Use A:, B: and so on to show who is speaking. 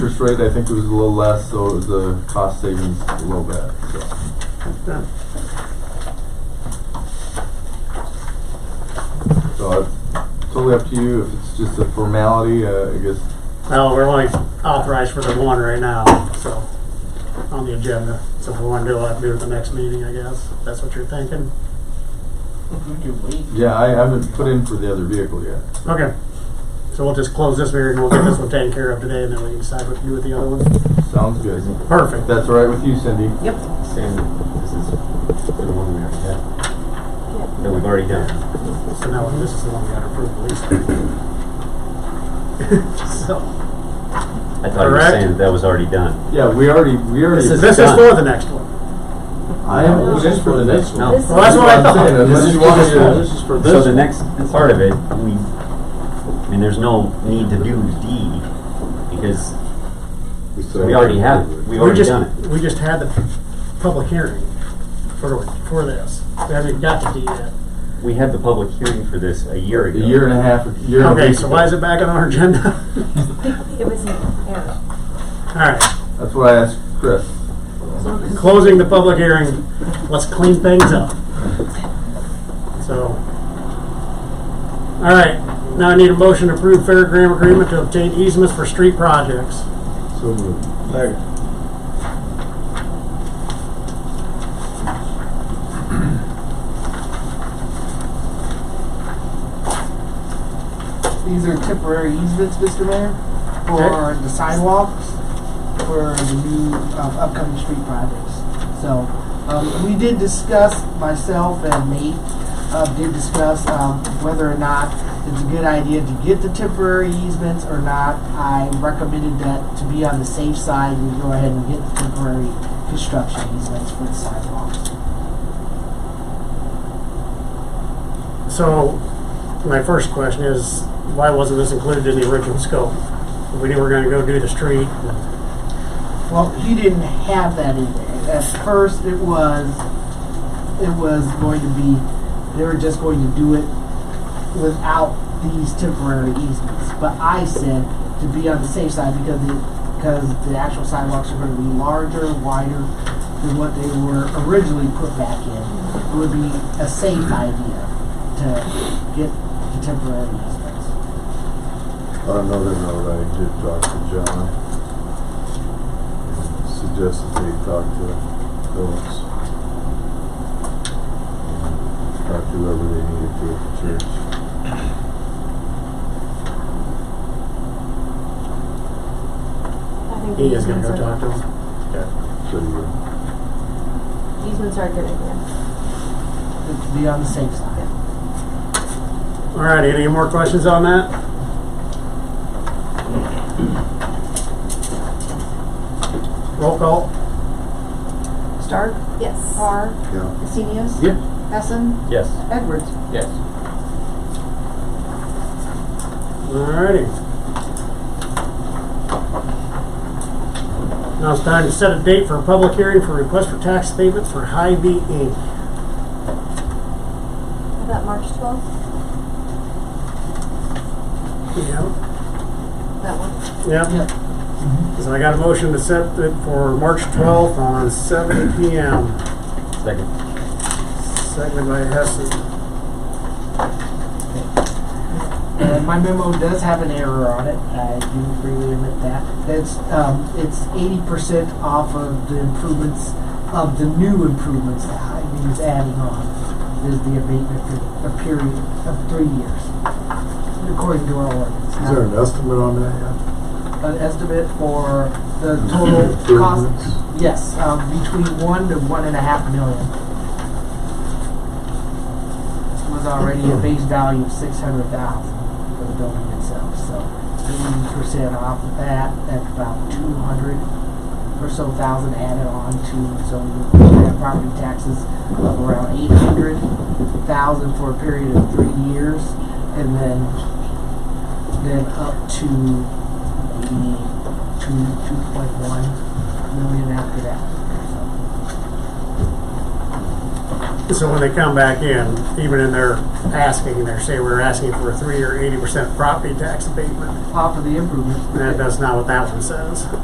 A: interest rate, I think, was a little less, so it was a cost savings a little bit, so.
B: Yeah.
A: So it's totally up to you, if it's just a formality, uh, I guess,
B: No, we're only authorized for the one right now, so, on the agenda. So if we want to do it, we'll have to do it at the next meeting, I guess. That's what you're thinking?
A: yeah, I haven't put in for the other vehicle yet.
B: Okay. So we'll just close this meeting, we'll get this one taken care of today, and then we can decide what to do with the other one.
A: Sounds good. If
B: Perfect.
A: that's all right with you, Cindy?
C: Yep.
D: Same, this is for the one we already had. That we've already done.
B: So now this is the one we gotta approve the lease. So,
D: I thought you were
B: Correct.
D: saying that that was already done.
A: Yeah, we already, we already.
D: This
B: this is for the next one.
A: I haven't put in for the next one.
D: No.
C: This
B: Well, that's what I thought.
A: Unless you want me to-
D: This So the next part of it, we, I mean, there's no need to do D because we already have, it. we've
B: We
D: already
B: just,
D: done it.
B: we just had the public hearing for, for this. We haven't got to D yet.
D: We had the public hearing for this a year
A: A
D: ago.
A: year and a half, a year and a
B: Okay,
A: week
B: so
A: ago.
B: why is it back on our agenda?
C: It was, yeah.
B: All right,
A: That's what I asked Chris.
B: closing the public hearing, let's clean things up. So, all right, now I need a motion to approve fairground agreement to obtain easements for street projects.
A: So moved.
E: These are temporary easements, Mr. Mayor, for
B: Okay.
E: the sidewalks, for the new um, upcoming street projects. So, um, we did discuss, myself and Nate, uh, did discuss, um, whether or not it's a good idea to get the temporary easements or not. I recommended that to be on the safe side, we go ahead and get the temporary construction easements for the sidewalks.
B: So, my first question is, why wasn't this included in the original scope? We knew we were gonna go do the street,
E: Well, he didn't have that in there. At first, it was it was going to be they were just going to do it without these temporary easements. But I said to be on the safe side because the because the actual sidewalks are going to be larger, wider than what they were originally put back in. It would be a safe idea to get the temporary easements.
F: On another note, I did talk to John. and Suggested they talk to Phillips. and Talk to whoever they needed to at the church.
C: I think
B: he
C: the
B: is gonna
C: easements
B: go talk
C: are
B: to
C: good.
B: them.
F: So you
C: Easements are a good idea.
E: To be on the safe side.
B: All right, any more questions on that? Roll call.
G: Stark,
C: Yes.
G: Parr,
F: yeah,
G: Esenius,
A: Yeah.
G: Hessen,
D: Yes.
G: Edwards.
A: Yes.
B: Alrighty. Now it's time to set a date for a public hearing for request for tax statements for Hy-Vee Inc.
C: How About March twelfth,
B: Yeah.
C: that one.
B: Yep,
E: Uh,
B: so I got a motion to set it for March twelfth on seven P M.
D: Second.
B: Seconded by Hessen.
E: Uh, my memo does have an error on it. I do freely admit that. That's um, it's eighty percent off of the improvements of the new improvements that Hy-Vee's adding on is the abatement for a period of three years, according to our ordinance.
F: Is there an estimate on that
E: an estimate for the
F: yet?
E: total
F: Improvements?
E: cost? Yes, um, between one to one and a half million. Was already a base value of six hundred thousand for the building itself, so eighty percent off of that, that's about two hundred or so thousand added on to, so you're looking at property taxes of around eight hundred thousand for a period of three years, and then, then up to maybe two, two point one million after that.
B: So when they come back in, even in their asking, they're saying we're asking for a three or eighty percent property tax abatement.
E: Off of the improvement.
B: And that's not what that one says.